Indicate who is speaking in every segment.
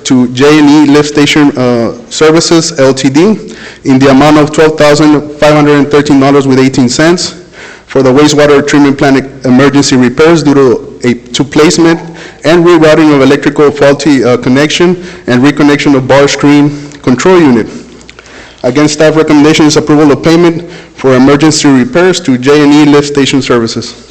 Speaker 1: to j and E Lift Station uh, Services LTD in the amount of $12,513 with 18 cents for the wastewater treatment plant emergency repairs due to a, to placement and rerouting of electrical faulty uh, connection and reconnection of bar screen control unit. Again, staff recommendation is approval of payment for emergency repairs to j and E Lift Station Services.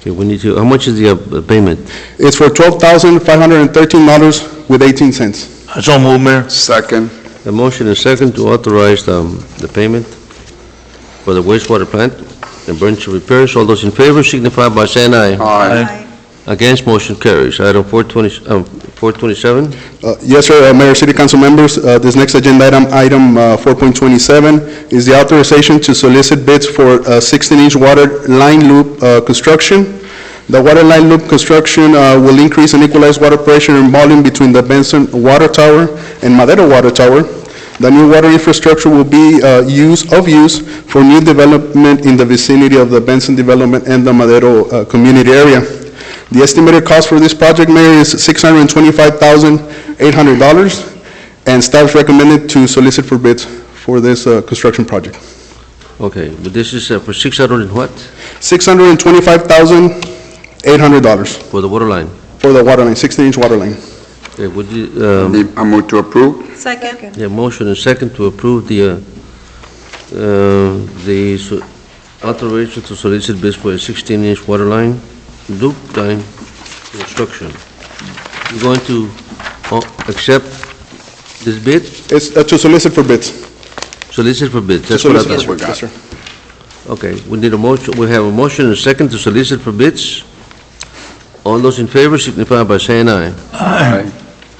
Speaker 2: Okay, we need to, how much is the uh, payment?
Speaker 1: It's for $12,513 with 18 cents.
Speaker 3: I so move, Mayor.
Speaker 1: Second.
Speaker 2: A motion and second to authorize um, the payment for the wastewater plant emergency repairs. All those in favor signify by saying aye.
Speaker 3: Aye.
Speaker 2: Against, motion carries. Item 420 um, 427,
Speaker 1: Uh, Yes, sir, uh, Mayor, City Council members, uh, this next agenda item, item uh, 4.27, is the authorization to solicit bids for 16-inch water line loop uh, construction. The water line loop construction uh, will increase and equalize water pressure and volume between the Benson Water Tower and Madero Water Tower. The new water infrastructure will be uh, use, of use for new development in the vicinity of the Benson Development and the Madero uh, Community Area. The estimated cost for this project, Mayor, is $625,800, and staff recommended to solicit for bids for this uh, construction project.
Speaker 2: okay, but this is uh, for 600 and what?
Speaker 1: $625,800
Speaker 2: For the water line?
Speaker 1: for the water line, 16-inch water line.
Speaker 2: Okay, would you, um,
Speaker 4: I move to approve.
Speaker 5: Second.
Speaker 2: yeah, motion and second to approve the, uh, uh, the so- authorization to solicit bids for a 16-inch water line, loop line construction. You're going to uh, accept this bid?
Speaker 1: It's uh, to solicit for bids.
Speaker 2: Solicit for bids, that's what I
Speaker 1: Solicit
Speaker 2: thought.
Speaker 1: for bids. Yes, sir.
Speaker 2: Okay, we need a motion, we have a motion and a second to solicit for bids. All those in favor signify by saying aye.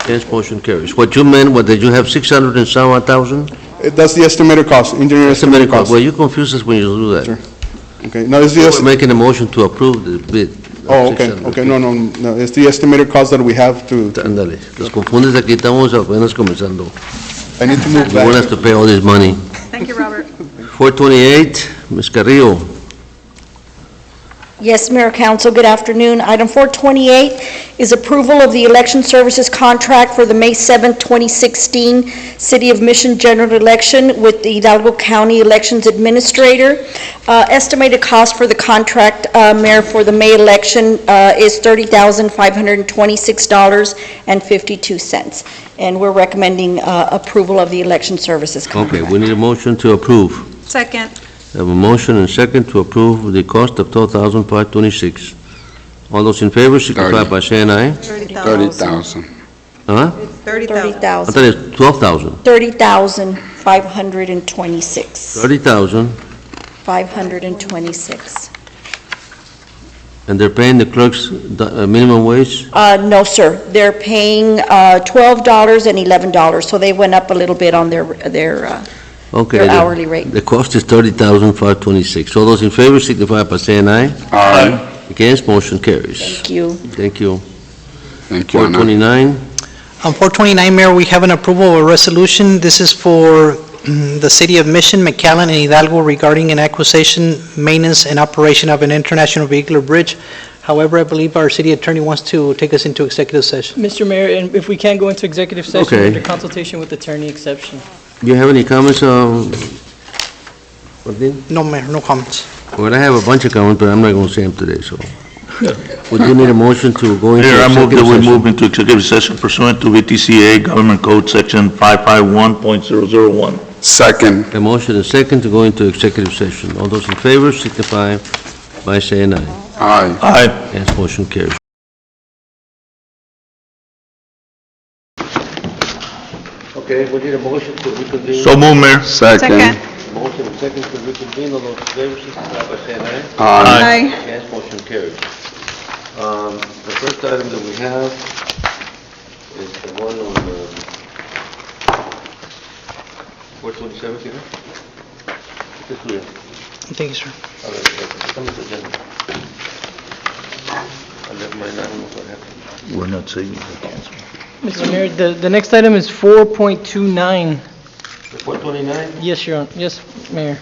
Speaker 2: Against, motion carries. What you meant, what, did you have 600 and some odd thousand?
Speaker 1: Uh, That's the estimated cost, engineer estimated cost.
Speaker 2: Well, you confuse us when you do that.
Speaker 1: Sure. Okay, no, it's the,
Speaker 2: We're
Speaker 1: est-
Speaker 2: making a motion to approve the bid.
Speaker 1: oh, okay, okay, no, no, no, it's the estimated cost that we have to,
Speaker 2: Ándale, los confundes, aquí estamos apenas comenzando.
Speaker 1: I need to move
Speaker 2: You want us
Speaker 1: back.
Speaker 2: to pay all this money.
Speaker 5: Thank you, Robert.
Speaker 2: 428, Ms. Carrillo.
Speaker 6: Yes, Mayor Council, good afternoon. Item 428 is approval of the election services contract for the May 7, 2016 City of Mission General Election with the Hidalgo County Elections Administrator. Uh, Estimated cost for the contract, uh, Mayor, for the May election uh, is $30,526.52. And we're recommending uh, approval of the election services
Speaker 2: Okay,
Speaker 6: contract.
Speaker 2: we need a motion to approve.
Speaker 5: Second.
Speaker 2: I have a motion and second to approve the cost of $12,526. All those in favor signify
Speaker 4: Aye.
Speaker 2: by saying aye. Uh-huh.
Speaker 4: Thirty thousand.
Speaker 2: Huh?
Speaker 5: Thirty thousand.
Speaker 2: I thought it
Speaker 6: 30000
Speaker 2: was 12,000.
Speaker 6: 30526
Speaker 2: 30,000,
Speaker 6: 526.
Speaker 2: and they're paying the clerks the uh, minimum wage?
Speaker 6: Uh, no, sir, they're paying, uh, twelve dollars and eleven dollars, so they went up a little bit on their, their, uh,
Speaker 2: Okay.
Speaker 6: Their
Speaker 2: the-
Speaker 6: hourly rate.
Speaker 2: The cost is 30,526. All those in favor signify by saying aye.
Speaker 4: Aye.
Speaker 2: Against, motion carries.
Speaker 6: queue.
Speaker 2: Thank you.
Speaker 4: Thank you, Ana.
Speaker 2: 429,
Speaker 7: On 429, Mayor, we have an approval of a resolution. This is for mm, the City of Mission, McAllen, and Hidalgo regarding an acquisition, maintenance, and operation of an international vehicular bridge. However, I believe our city attorney wants to take us into executive session.
Speaker 8: Mr. Mayor, and if we can go into executive session
Speaker 2: Okay.
Speaker 8: under consultation with attorney exception.
Speaker 2: do you have any comments? um, Martin?
Speaker 7: No, Mayor, no comments.
Speaker 2: Well, I have a bunch of comments, but I'm not going to say them today, so. Would you need a motion to go into
Speaker 3: Mayor, I move that
Speaker 2: executive
Speaker 3: we
Speaker 2: session?
Speaker 3: move into executive session pursuant to VTCA Government Code Section 551.001.
Speaker 4: Second.
Speaker 2: A motion and second to go into executive session. All those in favor signify by saying aye.
Speaker 4: Aye.
Speaker 3: Aye.
Speaker 2: Yes, motion carries. Okay, we need a motion to reconvene.
Speaker 3: So move, Mayor.
Speaker 4: Second.
Speaker 5: Second.
Speaker 2: Motion and second to reconvene. All those in favor signify by saying aye.
Speaker 4: Aye.
Speaker 5: Aye.
Speaker 2: Yes, motion carries. Um, The first item that we have is the one on the... 427, here? This is here.
Speaker 7: Thank you, sir.
Speaker 2: All right, okay. Come to the agenda. I left mine, I don't know what happened.
Speaker 3: We're not saying we cancel.
Speaker 8: Mr. Mayor, the, the next item is 4.29.
Speaker 2: 429?
Speaker 8: Yes, Your Honor, yes, Mayor.